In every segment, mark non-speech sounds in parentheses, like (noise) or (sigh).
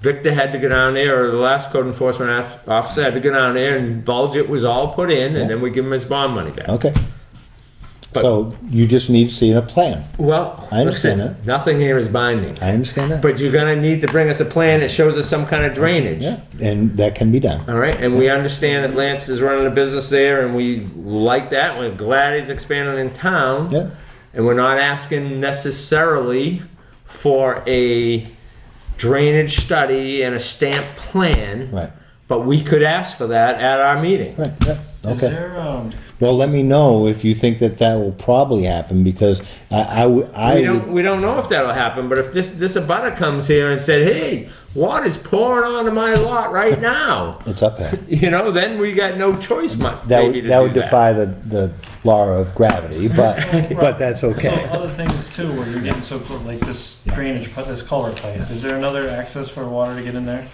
Victor had to go down there, or the last code enforcement ass- officer had to go down there and budget was all put in, and then we give him his bond money back. Okay. But- So you just need to see a plan. Well, I understand listen, nothing here is binding, I understand that. but you're gonna need to bring us a plan that shows us some kind of drainage. Yeah, and that can be done. All right, and we understand that Lance is running a business there, and we like that. We're glad he's expanding in town. Yeah. And we're not asking necessarily for a drainage study and a stamped plan. Right. But we could ask for that at our meeting. Right, yeah, Is okay. there, um, Well, let me know if you think that that will probably happen because I, I, would- I We don't, would, we don't know if that'll happen, but if this, this abutter comes here and said, hey, water's pouring onto my lot right now, (laughs) it's up there. you know, then we got no choice mu- That maybe would, to that do would defy the, the law of gravity, (laughs) but, but that's so okay. other things too, where you're getting so close, like this drainage, pipe, this culvert pipe, is there another access for water to get in there?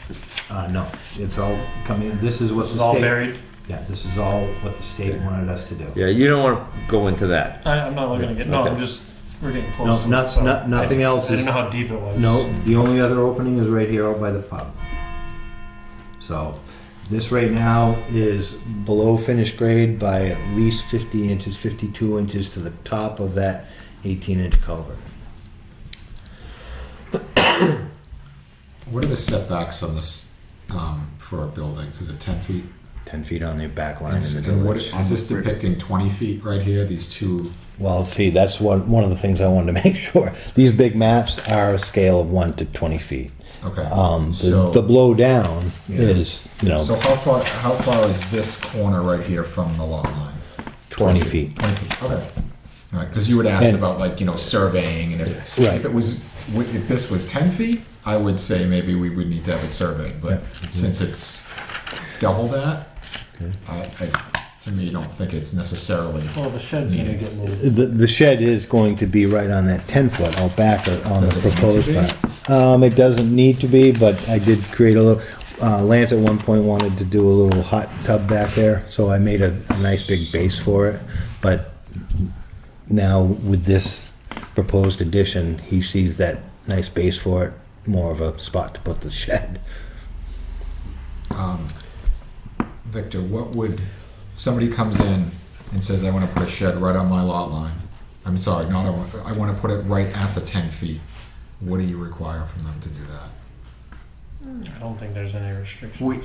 Uh, no, it's all coming, this is what This is the all state, buried? yeah, this is all what the state wanted us to do. Yeah, you don't want to go into that. I, I'm not looking to get, no, Okay. I'm just, we're getting No, close to not- it, so. not- I- nothing else I didn't is- know how deep it was. No, the only other opening is right here out by the pub. So, this right now is below finished grade by at least fifty inches, fifty-two inches to the top of that eighteen-inch culvert. What are the setbacks on this, um, for our buildings? Is it ten feet? Ten feet on the back line in the And what, village. is this depicting twenty feet right here, these two? Well, see, that's one, one of the things I wanted (laughs) to make sure. These big maps are a scale of one to twenty feet. Okay. Um, the, So- the blow down is, you So know, how far, how far is this corner right here from the lot line? twenty feet. Twenty feet, okay. All right, because you had asked And- about like, you know, surveying and if, Right. if it was, wi- if this was ten feet, I would say maybe we would need to have it surveyed, but Mm-hmm. since it's double that, I, I, to me, don't think it's necessarily. Well, the shed's gonna get moved. The, the shed is going to be right on that ten foot out back or on Does the it need to proposed be? part. Um, it doesn't need to be, but I did create a little, uh, Lance at one point wanted to do a little hot tub back there, so I made a, a nice big base for it. But now with this proposed addition, he sees that nice base for it, more of a spot to put the shed. Victor, what would, somebody comes in and says, I want to put a shed right on my lot line. I'm sorry, not, I want, I want to put it right at the ten feet. What do you require from them to do that? I don't think there's any restrictions. We,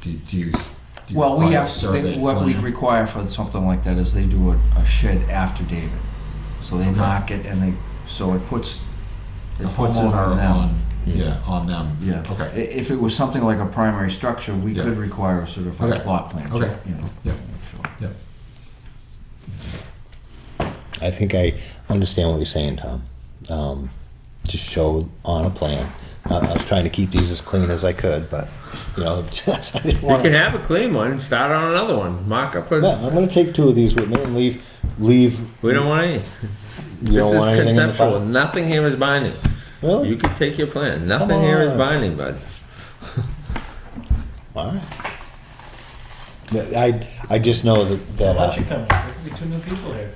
Do, do you? s- do you well, we require a have, survey they- what we plan? require for something like that is they do a, a shed after David. So they mark it and they, so it puts, The it puts it homeowner on them. Yeah, on them. Yeah. I- Okay. If it was something like a primary structure, we Yeah. could require a certified Okay. plot plan, Okay. you know. Yeah. Sure. Yeah. I think I understand what you're saying, Tom. Um, just show on a plan. I, I was trying to keep these as clean as I could, but you know, (laughs) just, I didn't You want. can have a clean one and start on another one. Mark up. Yeah, A, I'm going to take two of these with me and leave. Leave. we don't want any. You This don't want is anything in the conceptual. file? Nothing here is binding. Really? You can take your plan. Nothing here is on. binding, bud. All right. But I I just know that that Why don't you uh, come, there could be two new people here.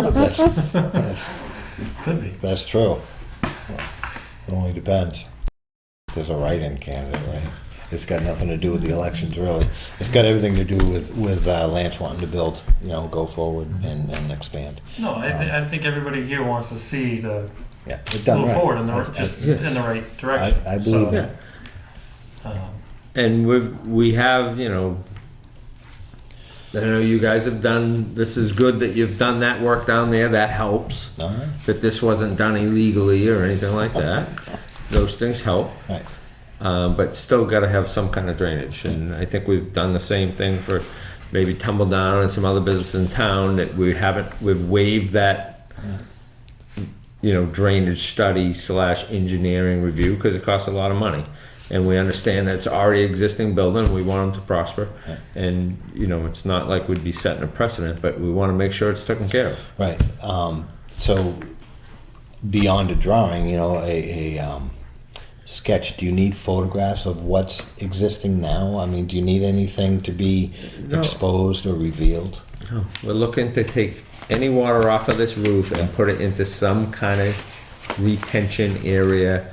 uh, that's, Could be. that's true. It only depends. There's a write-in candidate, right? It's got nothing to do with the elections, really. It's got everything to do with with uh, Lance wanting to build, you know, go forward and, and expand. No, I, thi- I think everybody here wants to see the, Yeah, it done move right. forward in I- the, I- just in the right direction. I, I believe So, that. um, And we've we have you know. I know you guys have done. This is good that you've done that work down there. That helps. All right. That this wasn't done illegally or anything like that. Those things help. All right. Uh, but still got to have some kind of drainage. And I think we've done the same thing for maybe Tumble Down and some other business in town that we haven't, we've waived that, you know, drainage study slash engineering review because it costs a lot of money. And we understand that it's already existing building, we want them to prosper. And, you know, it's not like we'd be setting a precedent, but we want to make sure it's taken care of. Right. Um, so beyond a drawing, you know, a, a um, sketch, do you need photographs of what's existing now? I mean, do you need anything to be No. exposed or revealed? We're looking to take any water off of this roof and put it into some kind of retention area,